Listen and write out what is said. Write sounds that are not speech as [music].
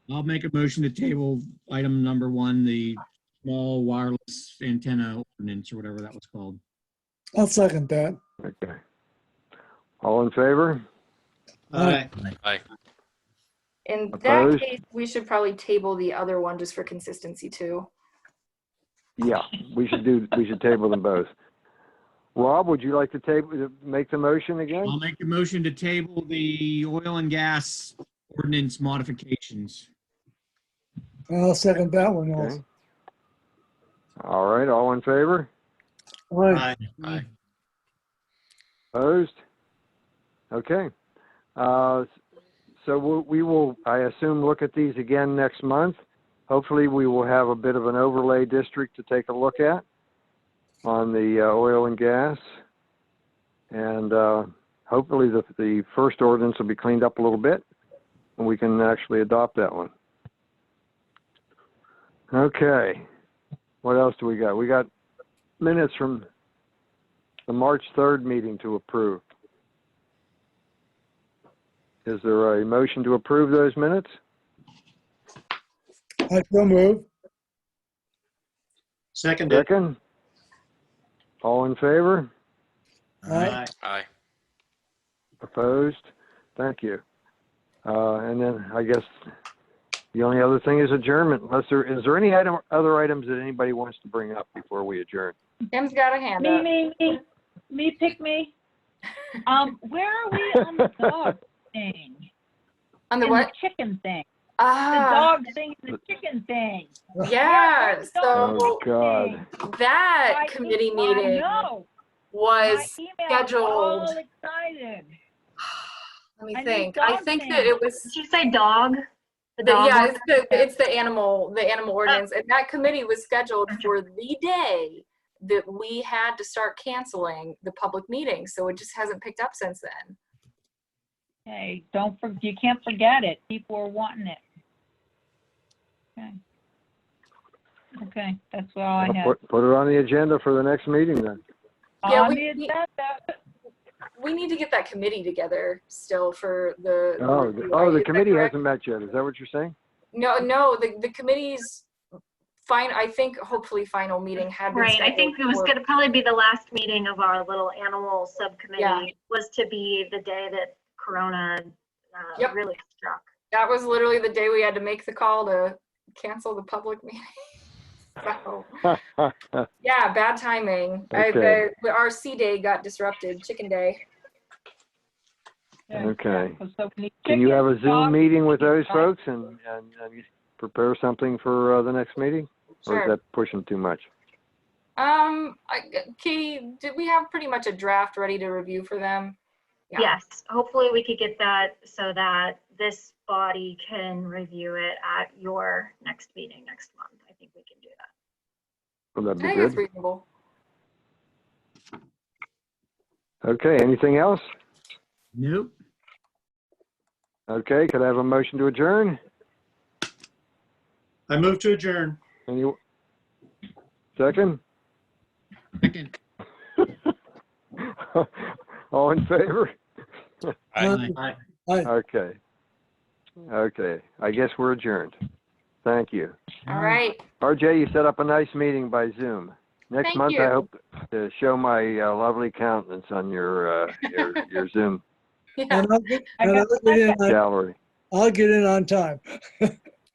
I'll make a motion to table item number one, the small wireless antenna ordinance or whatever that was called. I'll second that. Okay. All in favor? Aye. In that Opposed? case, we should probably table the other one just for consistency too. Yeah, we should do, we should table them both. Rob, would you like to table, make the motion I'll again? make a motion to table the oil and gas ordinance modifications. I'll second that one Okay. also. All right, all in favor? Aye. Aye. Opposed? Okay. Uh, So we- we will, I assume, look at these again next month. Hopefully, we will have a bit of an overlay district to take a look at on the uh, oil and gas. And uh, hopefully, the, the first ordinance will be cleaned up a little bit, and we can actually adopt that one. Okay. What else do we got? We got minutes from the March 3rd meeting to approve. Is there a motion to approve those minutes? I so move. Seconded. Second? All in favor? Aye. Aye. Opposed? Thank you. Uh, And then I guess the only other thing is adjournment, unless there, is there any item, other items that anybody wants to bring up before we adjourn? Kim's got a hand Me, up. me, me, me, pick me. Um, where are we [laughs] on the dog thing? On the And what? Chicken thing. The Ah, dog thing, and the chicken thing. yeah, so Oh, God. that I- committee I meeting know. was, My emails were all scheduled. Excited. let me I need think, I dog think that things. it was Did you say dog? The- The dog Yeah, one? it's the, it's the animal, the animal ordinance, and that committee was scheduled for the day that we had to start canceling the public meeting, so it just hasn't picked up since then. Hey, don't, for- you can't forget it. People are wanting it. Okay. Okay, that's all I have. Put put it on the agenda for the next meeting then. Yeah, On we- the agenda. We need to get that committee together still for the. Oh, the- review. oh, Is the that committee correct? hasn't met yet, is that what you're saying? No, no, the, the committee's fine, I think hopefully final meeting had been Right, I think it scheduled was for- gonna probably be the last meeting of our little animal Yeah. subcommittee was to be the day that Corona uh, Yep. really struck. That was literally the day we had to make the call to cancel the public meeting. [laughs] So. [laughs] Yeah, bad timing. I, Okay. the, our C day got disrupted, chicken day. Okay. So we need Can you have a chicken, dog, Zoom meeting with those dog. folks and, and and you prepare something for uh, the next meeting? Or is Sure. that pushing too much? Um, I, Katie, did we have pretty much a draft ready to review for them? Yeah. Yes, hopefully we could get that so that this body can review it at your next meeting next month. I think we can do that. Would that I be think that's good? reasonable. Okay, anything else? Nope. Okay, could I have a motion to adjourn? I move to adjourn. Any, second? [laughs] Second. All in favor? Aye. Aye. Okay. Okay, I guess we're adjourned. Thank you. All right. [laughs] RJ, you set up a nice meeting by Zoom. Next Thank month, you. I hope to show my uh, lovely countenance on your, uh, your, your Zoom Yeah. And I'll get, I and got I'll get in, on- gallery. I'll get in on time.